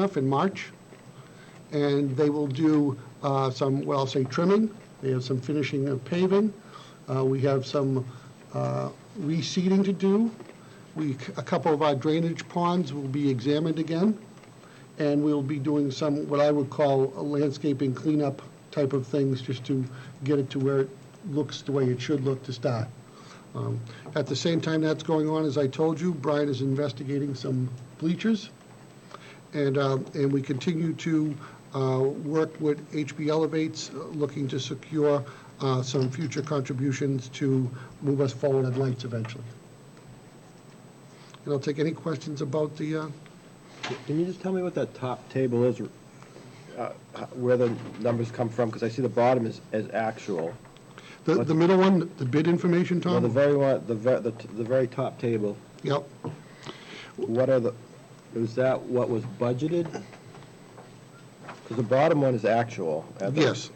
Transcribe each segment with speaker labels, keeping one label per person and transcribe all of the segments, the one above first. Speaker 1: enough in March, and they will do uh, some, well, I'll say trimming, they have some finishing of paving, Uh, we have some uh, reseeding to do, we, a couple of our drainage ponds will be examined again, and we'll be doing some, what I would call a landscaping cleanup type of things, just to get it to where it looks the way it should look to start. Um, At the same time that's going on, as I told you, Brian is investigating some bleachers. And, um, and we continue to uh, work with HB Elevates, uh, looking to secure uh, some future contributions to move us forward on lights eventually. And I'll take any questions about the, uh,
Speaker 2: Can you just tell me what that top table is, uh, h- where the numbers come from? Because I see the bottom is, is actual.
Speaker 1: the the middle one, the bid information,
Speaker 2: Well, the
Speaker 1: Tom?
Speaker 2: very one, the ver, the, t- the very top table,
Speaker 1: Yep.
Speaker 2: what are the, is that what was budgeted? Because the bottom one is actual. Uh, I thought-
Speaker 1: Yes.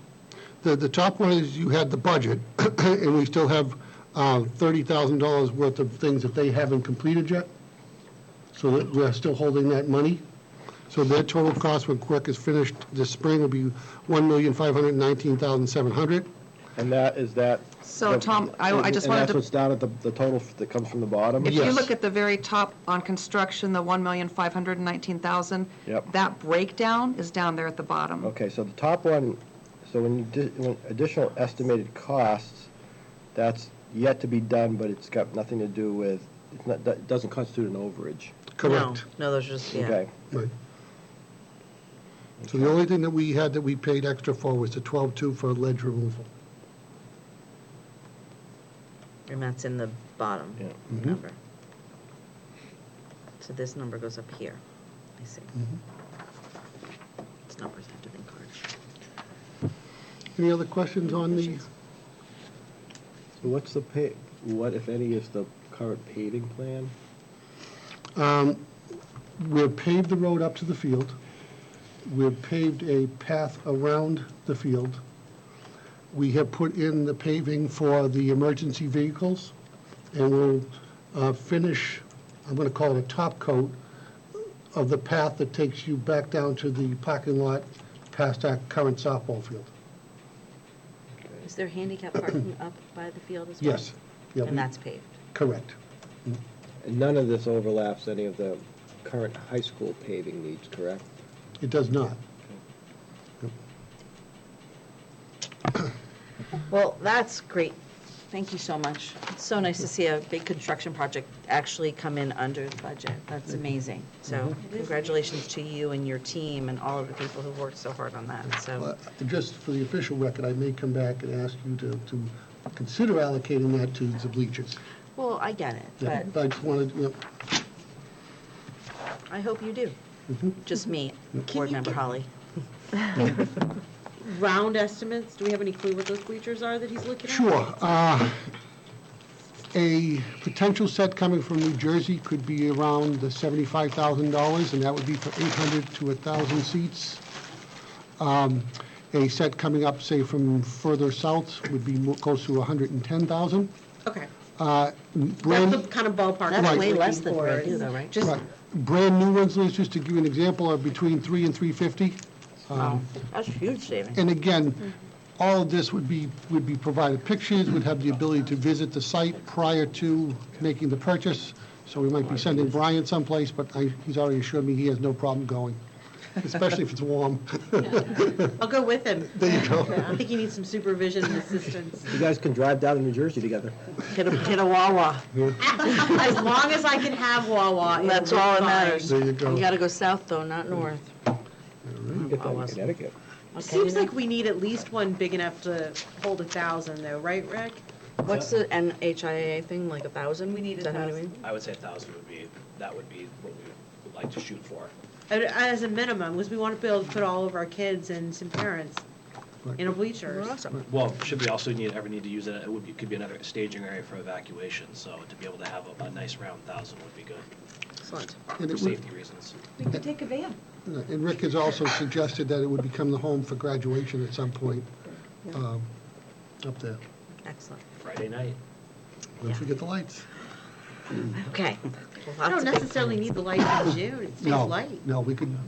Speaker 1: The, the top one is you had the budget, and we still have uh, $30,000 worth of things that they haven't completed yet. So that we're still holding that money. So their total cost when Quirk is finished this spring will be $1,519,700.
Speaker 2: And that, is that?
Speaker 3: So, Tom, I- I just
Speaker 2: And
Speaker 3: wanted
Speaker 2: that's
Speaker 3: to,
Speaker 2: what's down at the, the total f- that comes from the bottom?
Speaker 3: if you
Speaker 1: Yes.
Speaker 3: look at the very top on construction, the 1,519,000.
Speaker 2: Yep.
Speaker 3: That breakdown is down there at the bottom.
Speaker 2: Okay, so the top one, so when you, di- when additional estimated costs, that's yet to be done, but it's got nothing to do with, it's not, that doesn't constitute an overage.
Speaker 1: Correct.
Speaker 4: No, no, those are just, yeah.
Speaker 2: Okay,
Speaker 1: Right. So the only thing that we had that we paid extra for was the 12.2 for ledge removal.
Speaker 4: And that's in the bottom
Speaker 2: Yeah.
Speaker 1: Mhm.
Speaker 4: number. So this number goes up here. I see.
Speaker 1: Mm-hmm.
Speaker 4: It's numbers after the card.
Speaker 1: Any other questions on the,
Speaker 2: so what's the pay, what, if any, is the current paving plan?
Speaker 1: um, we've paved the road up to the field. We've paved a path around the field. We have put in the paving for the emergency vehicles, and we'll uh, finish, I'm going to call it a top coat, of the path that takes you back down to the parking lot past our current softball field.
Speaker 4: Is there handicap parking up by the field as well?
Speaker 1: Yes. Yeah, we-
Speaker 4: And that's paved?
Speaker 1: Correct.
Speaker 2: And none of this overlaps any of the current high school paving needs, correct?
Speaker 1: It does not.
Speaker 4: Well, that's great. Thank you so much. It's so nice to see a big construction project actually come in under the budget. That's amazing. So
Speaker 1: Mm-hmm.
Speaker 4: congratulations to you and your team and all of the people who worked so hard on that, so.
Speaker 1: Well, Just for the official record, I may come back and ask you to, to consider allocating that to the bleachers.
Speaker 4: Well, I get it,
Speaker 1: Yeah,
Speaker 4: but
Speaker 1: I just wanted, you know,
Speaker 4: I hope you do.
Speaker 1: Mm-hmm.
Speaker 4: Just me, Board Member Holly.
Speaker 5: round estimates? Do we have any clue what those bleachers are that he's looking at?
Speaker 1: sure, uh, a potential set coming from New Jersey could be around the seventy-five thousand dollars, and that would be for eight hundred to thousand seats. Um, A set coming up, say, from further south would be mo- close to a hundred and ten thousand.
Speaker 5: Okay,
Speaker 1: That's
Speaker 5: that's the kind of ballpark.
Speaker 4: That's
Speaker 5: I'm
Speaker 4: way
Speaker 5: looking
Speaker 4: less than
Speaker 5: for
Speaker 4: we do
Speaker 5: is-
Speaker 4: though, right?
Speaker 5: Just,
Speaker 1: Right. Brand new ones, Liz, just to give you an example, are between three and three fifty.
Speaker 4: Wow, Oh, That's huge savings.
Speaker 1: Um, And again, all of this would be, would be provided pictures, would have the ability to visit the site prior to making the purchase. So we might be sending Brian someplace, but I, he's already assured me he has no problem going, especially if it's warm.
Speaker 5: I'll go with him.
Speaker 1: There you go.
Speaker 5: I think he needs some supervision and assistance.
Speaker 2: You guys can drive down to New Jersey together.
Speaker 4: Get a, get a Wawa,
Speaker 5: As long as I can have Wawa. it'll
Speaker 4: that's
Speaker 5: be
Speaker 4: all that
Speaker 5: fine.
Speaker 4: matters.
Speaker 1: There you go. Mm-hmm.
Speaker 4: You gotta go south though, not north.
Speaker 2: You get that in
Speaker 4: Wawa's-
Speaker 2: Connecticut.
Speaker 4: Okay,
Speaker 5: Seems
Speaker 4: you know-
Speaker 5: like we need at least one big enough to hold a thousand though, right, Rick?
Speaker 4: What's the NHIA thing, like a thousand? We
Speaker 5: need a thousand.
Speaker 6: I would say a thousand would be, that would be what we would like to shoot for.
Speaker 5: And As a minimum, because we want to be able to put all of our kids and some parents in a bleachers.
Speaker 4: Awesome.
Speaker 6: Well, should we also need, ever need to use it, it would be, could be another staging area for evacuation, so to be able to have a, a nice round thousand would be good,
Speaker 4: Excellent.
Speaker 1: And
Speaker 6: for
Speaker 1: it would- uh,
Speaker 6: safety reasons.
Speaker 5: We could take a van.
Speaker 1: And Rick has also suggested that it would become the home for graduation at some point um, up there.
Speaker 4: Excellent.
Speaker 6: Friday night.
Speaker 1: Don't forget the lights.
Speaker 4: Okay. Lots
Speaker 5: I don't
Speaker 1: Mm-hmm.
Speaker 4: of-
Speaker 5: necessarily need the lights in June. It stays
Speaker 1: No,
Speaker 5: light.
Speaker 1: No, we could